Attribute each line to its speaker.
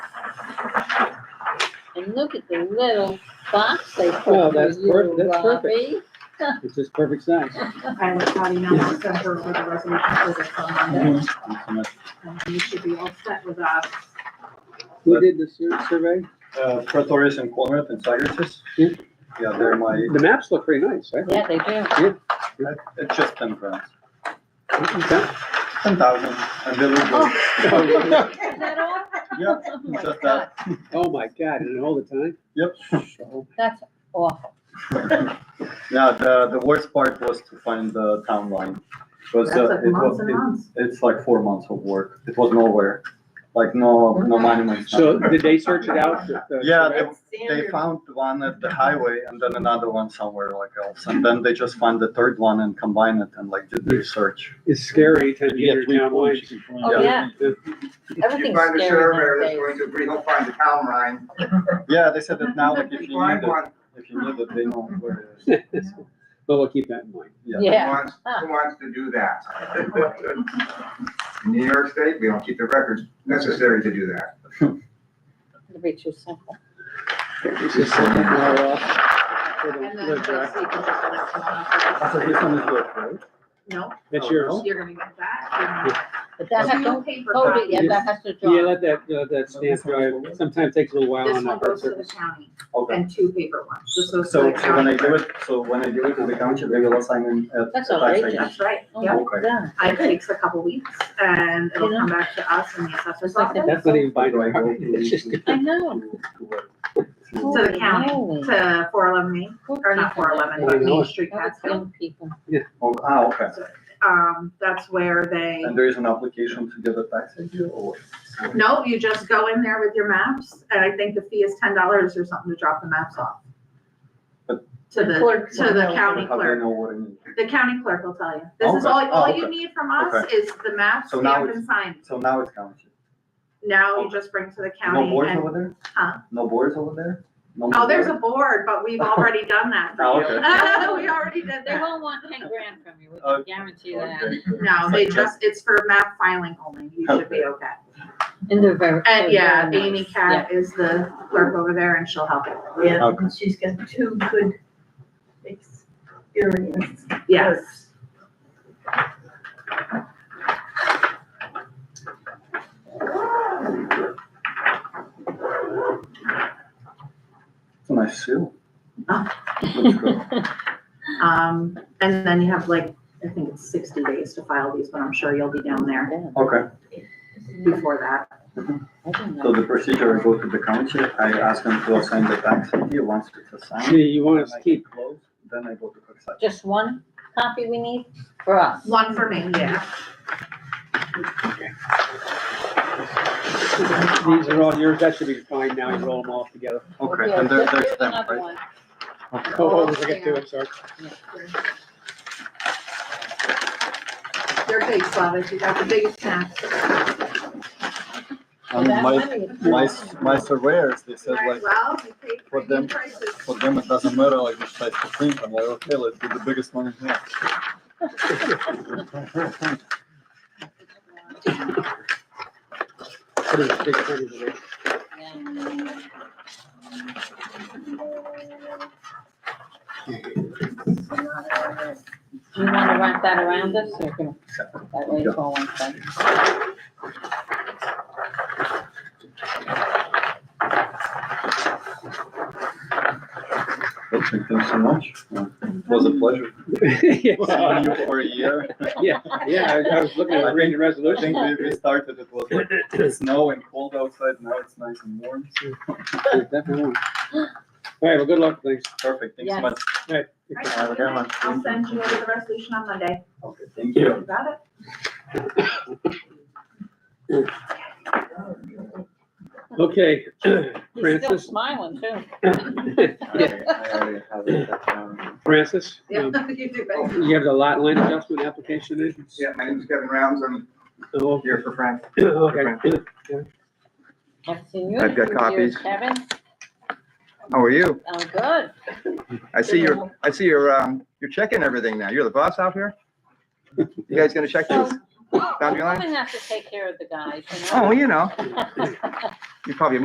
Speaker 1: And look at the little box they
Speaker 2: Well,
Speaker 1: put
Speaker 2: that's
Speaker 1: for you,
Speaker 2: per- that's perfect.
Speaker 1: Robbie.
Speaker 2: It's just perfect size.
Speaker 3: I was Patty now I'll send her with the resolution for this on Monday.
Speaker 4: Uh,
Speaker 3: And um, you should be all set with us.
Speaker 2: Who did the sur- survey?
Speaker 4: Uh, Pretorius and Corinth and Syracuse.
Speaker 2: Yeah.
Speaker 4: Yeah, they're my,
Speaker 2: The maps look pretty nice, right?
Speaker 1: Yeah, they do.
Speaker 4: it's just ten grams,
Speaker 2: Okay.
Speaker 4: ten thousand, and they look good.
Speaker 2: Oh,
Speaker 1: Is that all?
Speaker 4: Yeah,
Speaker 1: Oh my
Speaker 4: just
Speaker 1: God,
Speaker 4: that.
Speaker 2: Oh, my God, and all the time?
Speaker 4: Yep.
Speaker 2: Oh,
Speaker 1: That's awful.
Speaker 4: Yeah, the, the worst part was to find the town line. Was,
Speaker 3: That's
Speaker 4: uh,
Speaker 3: like
Speaker 4: it
Speaker 3: months
Speaker 4: was,
Speaker 3: and
Speaker 4: it-
Speaker 3: months.
Speaker 4: it's like four months of work. It was nowhere, like no, no monuments.
Speaker 2: So
Speaker 4: nothing.
Speaker 2: did they search it out? with the
Speaker 4: Yeah,
Speaker 2: survey?
Speaker 4: They found one at the highway and then another one somewhere like else. And then they just found the third one and combined it and like did the research.
Speaker 2: It's scary to hear town lines.
Speaker 1: Oh, yeah. Everything's
Speaker 5: You find the
Speaker 1: scary
Speaker 5: surveyor
Speaker 1: nowadays.
Speaker 5: that's going to agree, he'll find the town line.
Speaker 4: Yeah, they said that now, like if you need
Speaker 5: Find
Speaker 4: it,
Speaker 5: one,
Speaker 4: if you need it, they know where it is.
Speaker 2: But we'll keep that in mind.
Speaker 4: Yeah. Ah,
Speaker 5: who
Speaker 1: Yeah.
Speaker 5: wants, who wants to do that? In New York State, we don't keep the records necessary to do that.
Speaker 1: It'll be too simple.
Speaker 2: It's just something more
Speaker 4: Oh,
Speaker 2: off for
Speaker 3: And
Speaker 2: the-
Speaker 3: then
Speaker 2: the
Speaker 3: next
Speaker 2: drive.
Speaker 3: week, you just let us know how
Speaker 4: So
Speaker 3: to-
Speaker 4: this one is good, right?
Speaker 3: No,
Speaker 2: That's yours.
Speaker 3: you're gonna get that.
Speaker 1: But that has,
Speaker 3: Two
Speaker 1: don't
Speaker 3: paper
Speaker 1: fold it yet,
Speaker 3: copies.
Speaker 1: that has to dry.
Speaker 2: Yeah, let that, uh, that stamp drive, sometimes takes a little while
Speaker 3: This
Speaker 2: on the
Speaker 3: one
Speaker 2: hard
Speaker 3: goes to the
Speaker 2: surface.
Speaker 3: county
Speaker 4: Okay.
Speaker 3: and two paper ones. This
Speaker 4: So,
Speaker 3: goes to
Speaker 4: so
Speaker 3: the
Speaker 4: when I
Speaker 3: county.
Speaker 4: do it, so when I do it to the township, they will assign it at.
Speaker 1: That's
Speaker 4: at
Speaker 1: all right, Josh.
Speaker 4: tax agency.
Speaker 3: That's right,
Speaker 1: Oh,
Speaker 3: yeah.
Speaker 1: my God.
Speaker 3: It takes a couple weeks and it'll
Speaker 1: Yeah.
Speaker 3: come back to us in the assessor's
Speaker 1: It's like
Speaker 3: office
Speaker 1: that.
Speaker 2: That's not even by the
Speaker 4: Do I go to-
Speaker 2: it's just.
Speaker 1: I know.
Speaker 3: To the county.
Speaker 1: Holy moly.
Speaker 3: to four eleven Main,
Speaker 1: Good
Speaker 3: or not
Speaker 1: people.
Speaker 3: four eleven,
Speaker 2: I
Speaker 3: but
Speaker 2: know
Speaker 3: Main
Speaker 2: it.
Speaker 3: Street,
Speaker 1: That's
Speaker 3: Catskill.
Speaker 1: young people.
Speaker 4: Oh, ah, okay.
Speaker 3: Um, that's where they,
Speaker 4: And there is an application to get a tax ID or?
Speaker 3: no, you just go in there with your maps, and I think the fee is ten dollars or something to drop the maps off.
Speaker 4: But-
Speaker 3: To the,
Speaker 1: Clerk.
Speaker 3: to the county
Speaker 4: How do I
Speaker 3: clerk,
Speaker 4: know what I need?
Speaker 3: the county clerk will tell you. This is
Speaker 4: Okay.
Speaker 3: all, all
Speaker 4: Oh,
Speaker 3: you
Speaker 4: okay.
Speaker 3: need from us is the maps,
Speaker 4: So now
Speaker 3: stamp
Speaker 4: it's-
Speaker 3: and sign.
Speaker 4: So now it's township.
Speaker 3: Now you just bring to the
Speaker 4: No
Speaker 3: county
Speaker 4: boards
Speaker 3: and,
Speaker 4: over there?
Speaker 3: Huh?
Speaker 4: No boards over there? No
Speaker 3: oh, there's a
Speaker 4: board?
Speaker 3: board, but we've already done that
Speaker 4: Oh,
Speaker 3: for you.
Speaker 1: okay.
Speaker 3: We already did
Speaker 1: They
Speaker 3: that.
Speaker 1: won't want ten grand from you, we can
Speaker 4: Okay.
Speaker 1: guarantee that.
Speaker 4: Okay.
Speaker 3: No, they just, it's for map filing only. You should be okay.
Speaker 1: And they're very. they're
Speaker 3: And yeah,
Speaker 1: very
Speaker 3: Amy
Speaker 1: nice.
Speaker 3: Cat is the clerk over there and she'll help. you.
Speaker 6: Yeah,
Speaker 4: Okay.
Speaker 6: and she's got two good experience.
Speaker 3: Yes.
Speaker 4: It's a nice seal.
Speaker 3: Oh.
Speaker 4: Let's go.
Speaker 3: Um, and then you have like, I think it's sixty days to file these, but I'm sure you'll be down there
Speaker 1: Yeah,
Speaker 4: Okay,
Speaker 3: before that.
Speaker 1: I didn't know.
Speaker 4: so the procedure, I go to the county, I ask them to assign the tax ID. Once it's assigned.
Speaker 2: See, you want us
Speaker 4: then
Speaker 2: to
Speaker 4: I
Speaker 2: keep,
Speaker 4: close, Then I go to the site.
Speaker 1: Just one copy we need for us.
Speaker 3: One for me, yeah.
Speaker 2: these are all yours, that should be fine now, you roll them all together.
Speaker 4: Okay,
Speaker 1: Yeah,
Speaker 4: and there,
Speaker 1: just
Speaker 4: there's
Speaker 1: give
Speaker 4: them,
Speaker 1: another
Speaker 4: right?
Speaker 1: one.
Speaker 2: Oh, I forgot to, I'm sorry.
Speaker 3: They're big, Slavic. You got the biggest snack.
Speaker 4: And
Speaker 1: That
Speaker 4: my,
Speaker 1: money is-
Speaker 4: my, my surveyors, they said like,
Speaker 3: Well, you paid
Speaker 4: For
Speaker 3: premium
Speaker 4: them.
Speaker 3: prices.
Speaker 4: for them, it doesn't matter like which size to print. I'm like, okay, let's do the biggest one in here.
Speaker 2: Put it in the big print over there.
Speaker 1: Do you wanna wrap that around us or can, that way it's all one thing?
Speaker 4: Well, thank you so much. It was a pleasure. Seeing
Speaker 2: Yeah,
Speaker 4: you for a year.
Speaker 2: yeah, I- I was looking at reading the
Speaker 4: I
Speaker 2: resolution.
Speaker 4: think we, we started, it was like snow and cold outside, now it's nice and warm.
Speaker 2: Yeah, definitely. All right, well, good luck, thanks.
Speaker 4: Perfect, thanks
Speaker 1: Yes.
Speaker 4: so much.
Speaker 3: All right,
Speaker 4: Have a good one.
Speaker 3: I'll send you over the resolution on Monday.
Speaker 4: Okay, thank you.
Speaker 3: You got it?
Speaker 2: Okay,
Speaker 1: He's still
Speaker 2: Francis,
Speaker 1: smiling too.
Speaker 2: Yeah.
Speaker 4: I already have it, that's, um,
Speaker 2: Francis,
Speaker 3: Yeah,
Speaker 2: um,
Speaker 3: you do it.
Speaker 2: you have the lot line adjustment application in?
Speaker 5: Yeah, my name's Kevin Rounds, I'm
Speaker 2: Oh,
Speaker 5: here for Frank.
Speaker 2: Okay.
Speaker 1: I've seen you.
Speaker 5: I've got
Speaker 1: for years,
Speaker 5: copies.
Speaker 1: Kevin,
Speaker 5: How are you?
Speaker 1: oh, good.
Speaker 5: I see your, I see your, um, you're checking everything now. You're the boss out here? You guys gonna check
Speaker 1: So,
Speaker 5: this?
Speaker 1: women
Speaker 5: Boundary line?
Speaker 1: have to take care of the guys, you know?
Speaker 5: Oh, you know, you probably